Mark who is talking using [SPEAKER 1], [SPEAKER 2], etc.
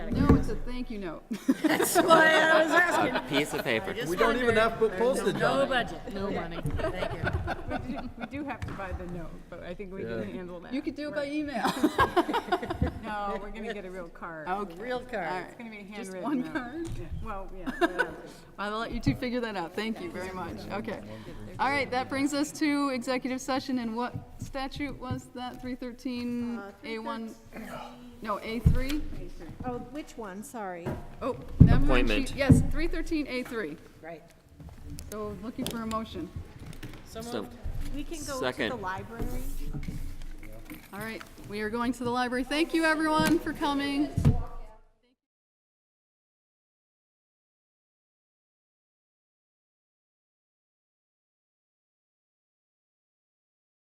[SPEAKER 1] a thank you note.
[SPEAKER 2] That's why I was asking.
[SPEAKER 3] a piece of paper.
[SPEAKER 2] Just
[SPEAKER 4] We don't even
[SPEAKER 2] wondered.
[SPEAKER 4] have to put
[SPEAKER 2] There's
[SPEAKER 4] postage on
[SPEAKER 2] No
[SPEAKER 4] it.
[SPEAKER 2] budget, no money. Thank you.
[SPEAKER 5] We do- we do have to buy the note, but I think we
[SPEAKER 4] Yeah.
[SPEAKER 5] can handle that.
[SPEAKER 1] You could do it by email.
[SPEAKER 5] No, we're gonna get a real card.
[SPEAKER 1] Okay.
[SPEAKER 2] Real card.
[SPEAKER 5] It's gonna be a
[SPEAKER 1] Just
[SPEAKER 5] handwritten.
[SPEAKER 1] one
[SPEAKER 5] note.
[SPEAKER 1] card?
[SPEAKER 5] Yeah, Well, yeah, whatever.
[SPEAKER 1] I'll let you two figure that out. Thank you very much. Okay. All right, that brings us to executive session, and what statute was that? Three thirteen A one? No, A three?
[SPEAKER 6] Oh, which one, sorry?
[SPEAKER 1] Oh, never mind.
[SPEAKER 3] Appointment.
[SPEAKER 1] She- Yes, three thirteen A three.
[SPEAKER 2] Right.
[SPEAKER 1] So looking for a motion.
[SPEAKER 3] So,
[SPEAKER 6] We can go to the
[SPEAKER 3] Second.
[SPEAKER 6] library.
[SPEAKER 1] All right, we are going to the library. Thank you, everyone, for coming.